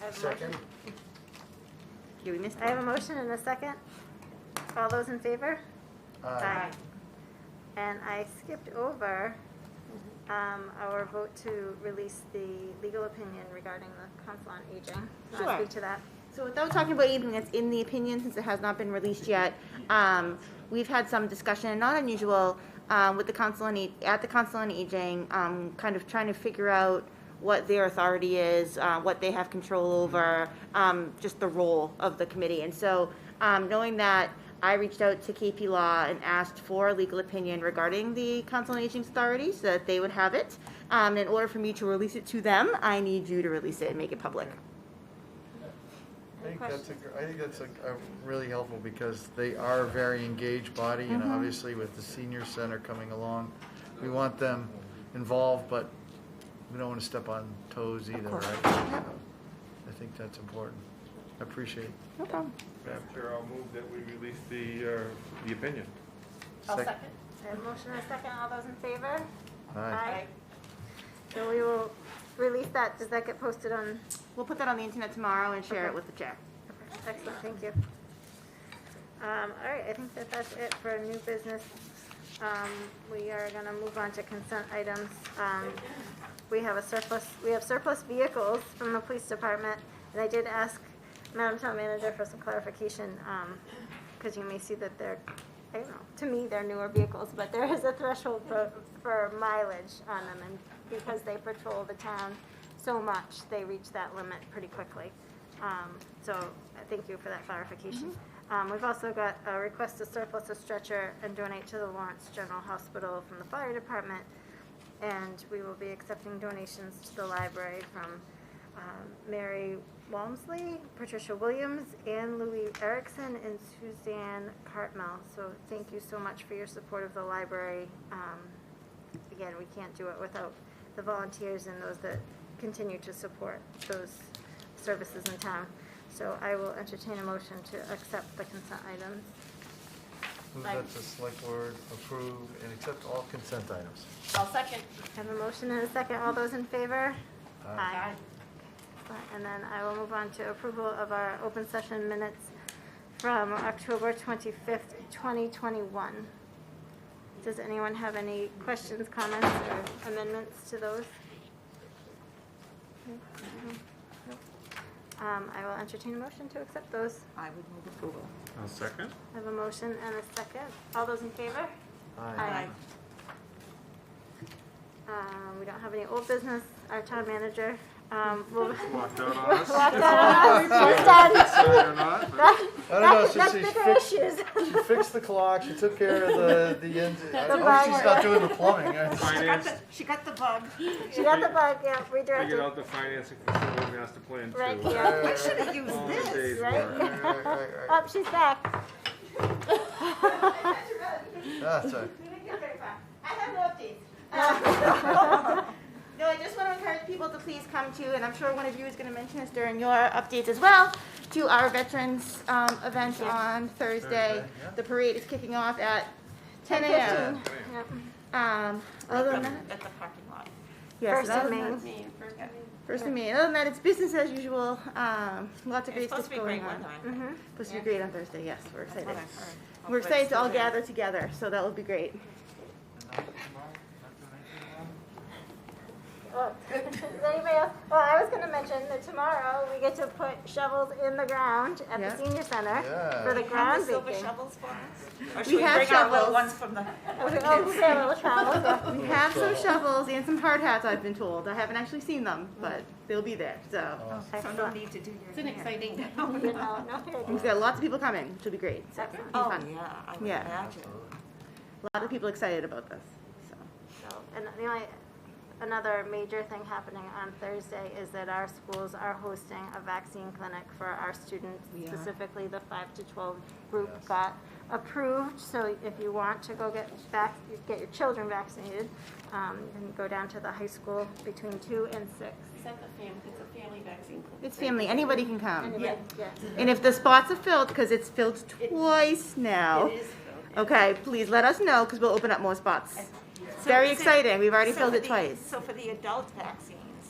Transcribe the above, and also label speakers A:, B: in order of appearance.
A: have a motion.
B: Second?
C: Do we miss?
A: I have a motion and a second. All those in favor?
B: Aye.
A: And I skipped over um, our vote to release the legal opinion regarding the Council on Aging. Can I
C: Sure.
A: speak to that?
C: So without talking about anything that's in the opinion, since it has not been released yet, um, we've had some discussion, not unusual, um, with the council on, Ag- at the council on aging, um, kind of trying to figure out what their authority is, uh, what they have control over, um, just the role of the committee. And so, um, knowing that, I reached out to KP Law and asked for a legal opinion regarding the council on aging's authority so that they would have it. Um, in order for me to release it to them, I need you to release it and make it public.
B: I think that's a, gr- I think that's a, a really helpful because they are a very engaged body and obviously with the senior center coming along, we want them involved, but we don't want to step on toes either,
C: course.
B: right? I think that's important. I appreciate
C: No problem.
D: Madam Chair, I'll move that we release the, uh, the opinion.
B: I'll second.
A: I have a motion and a second. All those in favor?
B: Aye.
A: So we will release that. Does that get posted on?
C: We'll put that on the internet tomorrow and share
A: Okay.
C: it with the chair.
A: Excellent, thank you. Um, all right, I think that that's it for new business. Um, we are gonna move on to consent items. Um, we have a surplus, we have surplus vehicles from the police department, and I did ask Madam Town Manager for some clarification, um, because you may see that they're, I don't know, to me, they're newer vehicles, but there is a threshold for, for mileage on them, and because they patrol the town so much, they reach that limit pretty quickly. Um, So uh, thank you for that clarification. Um, We've also got a request to surplus a stretcher and donate to the Lawrence General Hospital from the fire department. And we will be accepting donations to the library from um, Mary Walmsley, Patricia Williams, Anne Louise Erickson, and Suzanne Cartmel. So thank you so much for your support of the library. Um, again, we can't do it without the volunteers and those that continue to support those services in town. So I will entertain a motion to accept the consent items.
B: Move that the select board approve and accept all consent items.
E: I'll second.
A: I Have a motion and a second. All those in favor? Aye. And then I will move on to approval of our open session minutes from October 25th, 2021. Does anyone have any questions, comments, or amendments to those? Um, I will entertain a motion to accept those.
C: I would move approval.
D: I'll second.
A: I have a motion and a second. All those in favor?
B: Aye.
A: Um, we don't have any old business. Our town manager, um, will.
D: Walked out on us.
A: Locked out on us. We're done.
D: Sorry or not, but
B: I don't know,
A: That's-
B: since
A: That's
B: she
A: bigger
B: fixed,
A: issues.
B: she fixed the clock, she took care of the, the end. I
A: a
B: hope she's
A: bummer.
B: not doing the plumbing. I-
D: finance,
C: She got the bug.
A: She got the bug, yeah,
D: figured
A: redirected.
D: out the financing for the master plan too.
A: Right
B: All
A: here.
B: right, all
C: Should have used
D: All the
C: this.
D: days
A: right?
D: were-
B: right, all right, all right.
C: Um,
A: Up, she's back.
B: Ah, sorry.
C: We didn't get very far. I have no updates. Um, No, I just want to encourage people to please come to, and I'm sure one of you is going to mention this during your updates as well, to our Veterans um, event on Thursday.
B: Thursday, yeah.
C: The parade is kicking off at 10 a.m.
A: Yep.
C: Um, Other than that,
E: At the parking lot.
C: yes,
A: First
C: other
A: of
C: than
A: May.
C: that-
E: Me first.
C: First of May. Other than that, it's business as usual. Um, Lots of
E: It's
C: great
E: supposed
C: stuff
E: to be
C: going
E: great
C: on.
E: weather. I think.
C: Supposed to
E: Yeah.
C: be great on Thursday, yes, we're
E: That's
C: excited.
E: what I've heard.
C: We're
E: Hopefully
C: excited
E: it's
C: to all
E: still there.
C: gather together, so that will be great.
A: Oh, Does anybody else? Well, I was gonna mention that tomorrow we get to put shovels in the ground at
C: Yeah.
A: the senior center
B: Yeah.
A: for the
E: Do you have
A: ground
E: the silver
A: baking.
E: shovels for us? Or
C: We
E: should we
C: have
E: bring our
C: shovels.
E: little ones from the?
A: I was like, oh, we have little shovels.
C: We have some shovels and some hard hats, I've been told. I haven't actually seen them, but they'll be there, so.
A: Oh.
B: Awesome.
E: So no need to do your. It's an exciting.
A: You know, no, here it
C: We've
A: is.
C: got lots of people coming, which will be great. So, it'll be
E: Oh,
C: fun.
E: yeah, I would
C: Yeah.
E: imagine.
C: A lot of people excited about this, so.
A: So, And the only, another major thing happening on Thursday is that our schools are hosting a vaccine clinic for our students,
C: We are.
A: specifically the five to twelve group
B: Yes.
A: got approved. So if you want to go get vac, get your children vaccinated, um, you can go down to the high school between two and six.
E: Is that the family, it's a family vaccine clinic?
C: It's family, anybody can come.
A: Anybody- yeah.
C: And if the spots are filled, because it's filled twice now,
E: It is.
C: okay, please let us know, because we'll open up more spots.
E: So
C: Very
E: is it-
C: exciting, we've already
E: so
C: filled
E: for
C: it
E: the-
C: twice.
E: So for the adult vaccine,